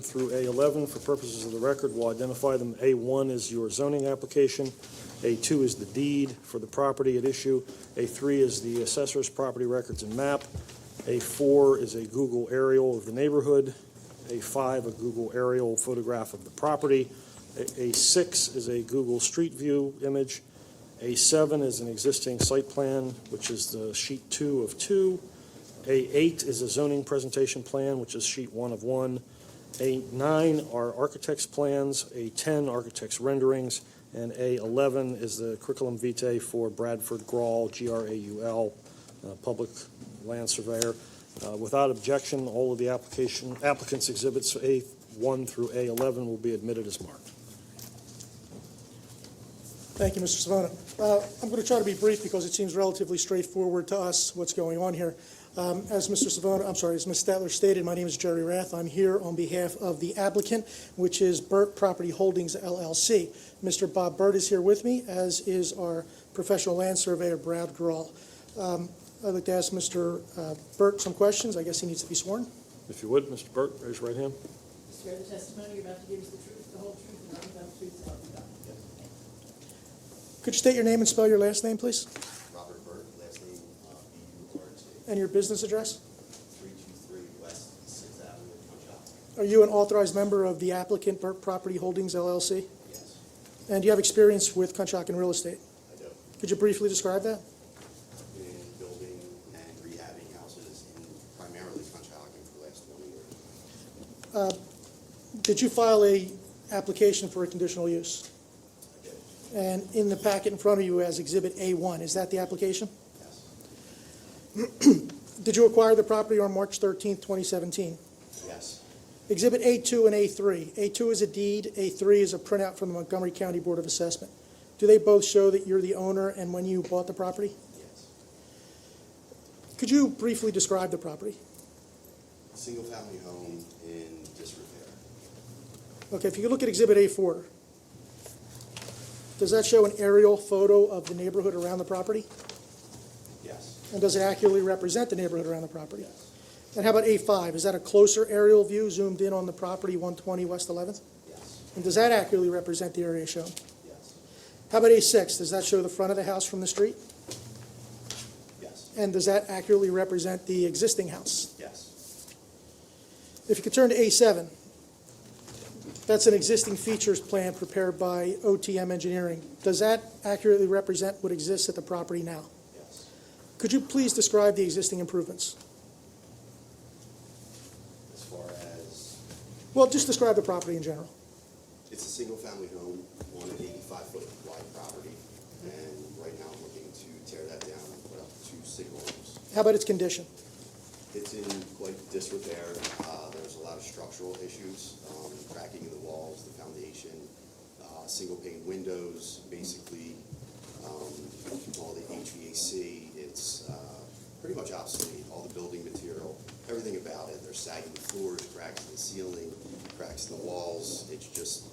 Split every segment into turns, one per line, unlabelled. through A11 for purposes of the record. We'll identify them. A1 is your zoning application. A2 is the deed for the property at issue. A3 is the assessor's property records and map. A4 is a Google aerial of the neighborhood. A5, a Google aerial photograph of the property. A- A6 is a Google Street View image. A7 is an existing site plan, which is the sheet two of two. A8 is a zoning presentation plan, which is sheet one of one. A9 are architect's plans, A10 architect's renderings, and A11 is the curriculum vitae for Bradford Grawl, G-R-A-U-L, uh, public land surveyor. Uh, Without objection, all of the application, applicants' exhibits A1 through A11 will be admitted as marked.
Thank you, Mr. Savona. Uh, I'm going to try to be brief because it seems relatively straightforward to us what's going on here. Um, As Mr. Savona, I'm sorry, as Ms. Statler stated, my name is Jerry Rath. I'm here on behalf of the applicant, which is Burt Property Holdings LLC. Mr. Bob Burt is here with me, as is our professional land surveyor, Brad Grawl. Um, I'd like to ask Mr. uh, Burt some questions. I guess he needs to be sworn.
If you would, Mr. Burt, raise your right hand.
Swear the testimony you're about to give is the truth, the whole truth, and nothing but the truth, so help you God.
Could you state your name and spell your last name, please?
Robert Burt, last name uh, B-U-R-T,
And your business address?
323 West 6th Avenue, Punxsutawney.
Are you an authorized member of the applicant, Burt Property Holdings LLC?
Yes,
And do you have experience with Conshohocken real estate?
I do.
Could you briefly describe that?
Been building and rehabbing houses in primarily Punxsutawney for the last 20 years.
Did you file a application for a conditional use?
I did,
And in the packet in front of you as Exhibit A1, is that the application?
yes,
Did you acquire the property on March 13, 2017?
yes,
Exhibit A2 and A3. A2 is a deed, A3 is a printout from the Montgomery County Board of Assessment. Do they both show that you're the owner and when you bought the property?
yes.
Could you briefly describe the property?
Single-family home in disrepair.
Okay, if you could look at Exhibit A4. Does that show an aerial photo of the neighborhood around the property?
Yes,
And does it accurately represent the neighborhood around the property?
yes,
And how about A5? Is that a closer aerial view zoomed in on the property 120 West 11th?
yes,
And does that accurately represent the area shown?
yes,
How about A6? Does that show the front of the house from the street?
yes,
And does that accurately represent the existing house?
yes,
If you could turn to A7, that's an existing features plan prepared by OTM Engineering. Does that accurately represent what exists at the property now?
yes.
Could you please describe the existing improvements?
As far as,
Well, just describe the property in general.
it's a single-family home on an 85-foot wide property, and right now I'm looking to tear that down and put up two single homes.
How about its condition?
It's in quite disrepair. Uh, There's a lot of structural issues, um, cracking in the walls, the foundation, uh, single pane windows, basically, um, all the HVAC. It's uh, pretty much obsolete, all the building material, everything about it. There's sagging floors, cracks in the ceiling, cracks in the walls. It's just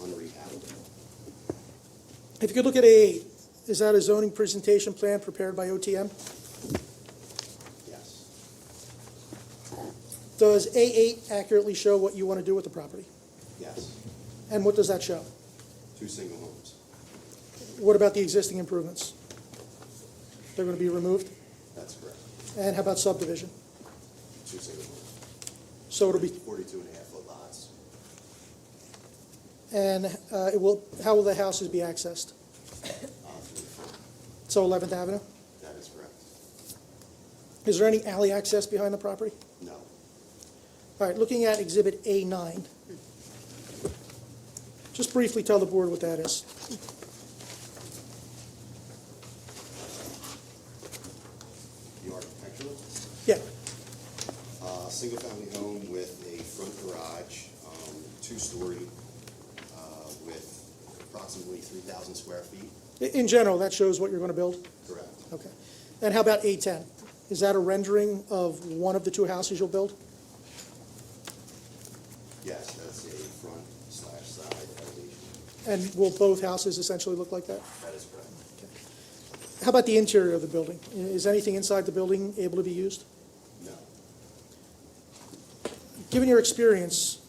unrehabbable.
If you could look at A8, is that a zoning presentation plan prepared by OTM?
Yes,
Does A8 accurately show what you want to do with the property?
yes,
And what does that show?
two single homes.
What about the existing improvements? They're going to be removed?
That's correct,
And how about subdivision?
two single homes.
So it'll be,
42 and a half foot lots,
and uh, it will, how will the houses be accessed?
uh, through the front.
So 11th Avenue?
That is correct.
Is there any alley access behind the property?
No,
All right, looking at Exhibit A9. Just briefly tell the board what that is.
the architectural,
Yeah,
uh, single-family home with a front garage, um, two-story, uh, with approximately three thousand square feet.
i- in general, that shows what you're going to build?
Correct.
Okay. And how about A10? Is that a rendering of one of the two houses you'll build?
Yes, that's a front slash side elevation.
And will both houses essentially look like that?
That is correct.
How about the interior of the building? I- Is anything inside the building able to be used?
No,
Given your experience,